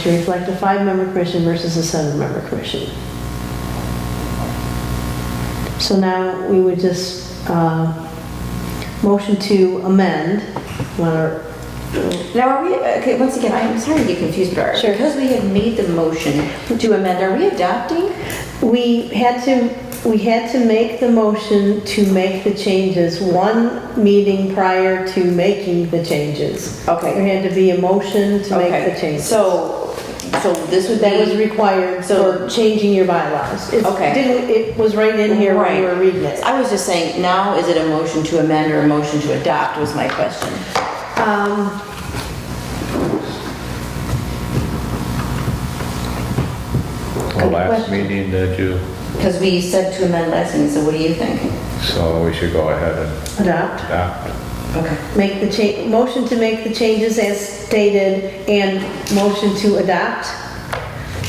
to reflect a five-member commission versus a seven-member commission. So now we would just, uh, motion to amend, wanna, Now, are we, okay, once again, I'm sorry to get confused, but are- Sure. because we had made the motion to amend, are we adopting? we had to, we had to make the motion to make the changes one meeting prior to making the changes. Okay. There had to be a motion to make Okay, the changes. So, so this would That was be, required So- for changing your bylaws. It Okay. didn't, it was right in here when you Right. were reading it. I was just saying, now is it a motion to amend or a motion to adopt was my question. Um, Well, last question. meeting did you, Because we said to amend last meeting, so what do you think? so we should go ahead and Adopt, adopt. Okay. make the change, motion to make the changes as stated and motion to adopt.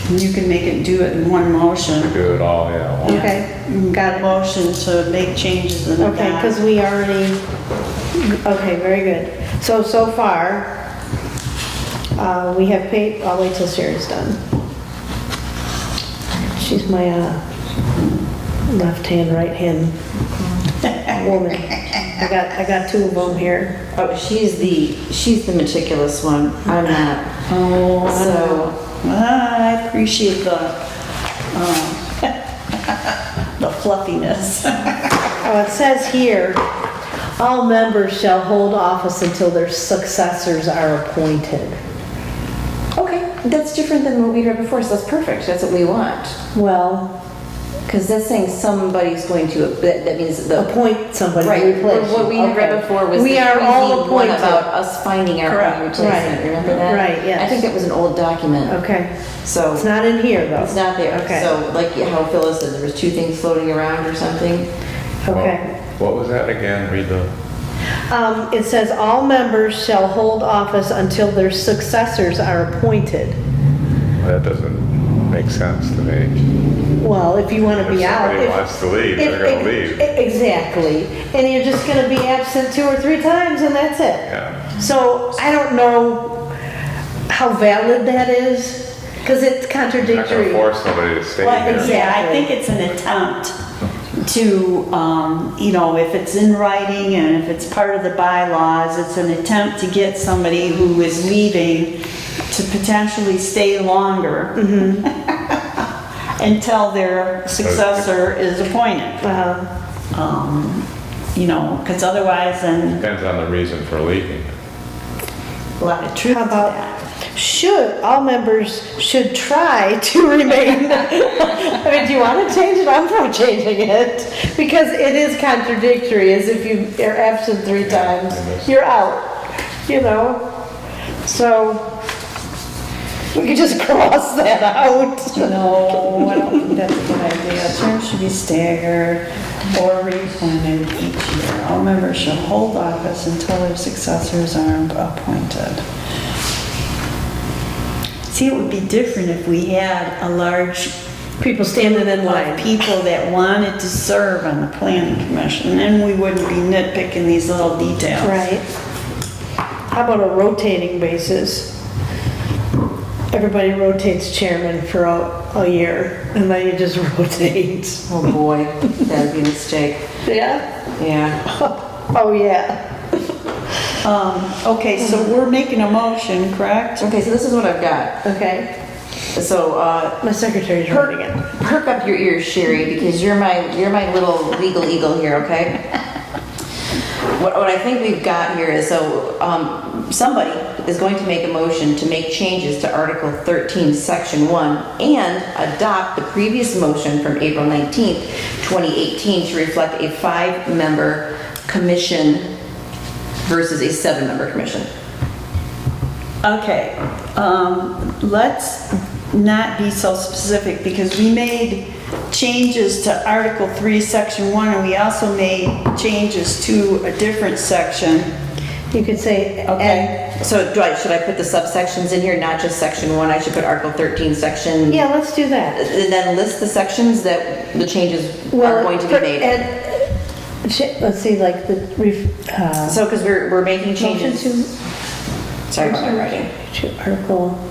You can make it, do it in one motion. Do it all, yeah. one- Okay, got it. Motion to make changes in the Okay, because we already, okay, very good. So, so far, uh, we have paid, I'll wait till Sherry's done. She's my uh, left-hand, right-hand woman. I got, I got two of them here. Oh, she's the, she's the meticulous one. I'm not. So, Oh, I appreciate the, um, the fluffiness. Oh, it says here, all members shall hold office until their successors are appointed. okay, that's different than what we heard before, so that's perfect. That's what we want. Well, Because that's saying somebody's going to, that that means the appoint somebody to Right, replace. what we had read Okay. before was the We are all easy one appointed. about us finding our Correct. own replacement, Right. remember that? Right, yes. I think that was an old document, Okay, so it's not in here though. it's not there. Okay. So like how Phyllis said, there was two things floating around or something. Okay. What was that again? Read the, Um, it says all members shall hold office until their successors are appointed. that doesn't make sense to me. Well, if you want to If be out. somebody if- wants to leave, they're if- gonna ex- leave. Exactly, and you're just gonna be absent two or three times and that's it. Yeah. So I don't know how valid that is, because it's You're not gonna contradictory. force somebody to stay Well, here. yeah, I think it's an attempt to, um, you know, if it's in writing and if it's part of the bylaws, it's an attempt to get somebody who is leaving to potentially stay longer Mm-hmm. until their successor is appointed. Uh, Um, You know, because otherwise then Depends on the reason for leaving. a lot of truth How to about- that. Should, all members should try to remain. I mean, do you want to change it? I'm for changing it, because it is contradictory, as if you are absent three Yeah, times, it is. you're out, you know? So, we could just cross that out. No, I don't think that's a good idea. Terms should be staggered or reappointed each year. All members shall hold office until their successors are appointed. See, it would be different if we had a large People standing in of line. people that wanted to serve on the planning commission, then we wouldn't be nitpicking these little details. Right. How about a rotating basis? Everybody rotates chairman for a, a year, and then you just rotate. Oh, boy, that'd be a mistake. Yeah? Yeah. Oh, yeah. Um, okay, so we're making a motion, correct? Okay, so this is what I've got. Okay. So, uh, My secretary's writing perk, it. perk up your ears, Sherry, because you're my, you're my little legal eagle here, okay? What, what I think we've got here is, so, um, somebody is going to make a motion to make changes to Article thirteen, Section one, and adopt the previous motion from April nineteenth, twenty eighteen, to reflect a five-member commission versus a seven-member commission. Okay, um, let's not be so specific because we made changes to Article 3, Section 1, and we also made changes to a different section. You could say, and, Okay. So do I, should I put the subsections in here, not just Section one? I should put Article thirteen, Section? yeah, let's do that. And then list the sections that the changes are Well, going to be per- made. and- sh- Let's see, like the, ref- uh, So, because we're, we're making motion changes. to Sorry about my writing. to Article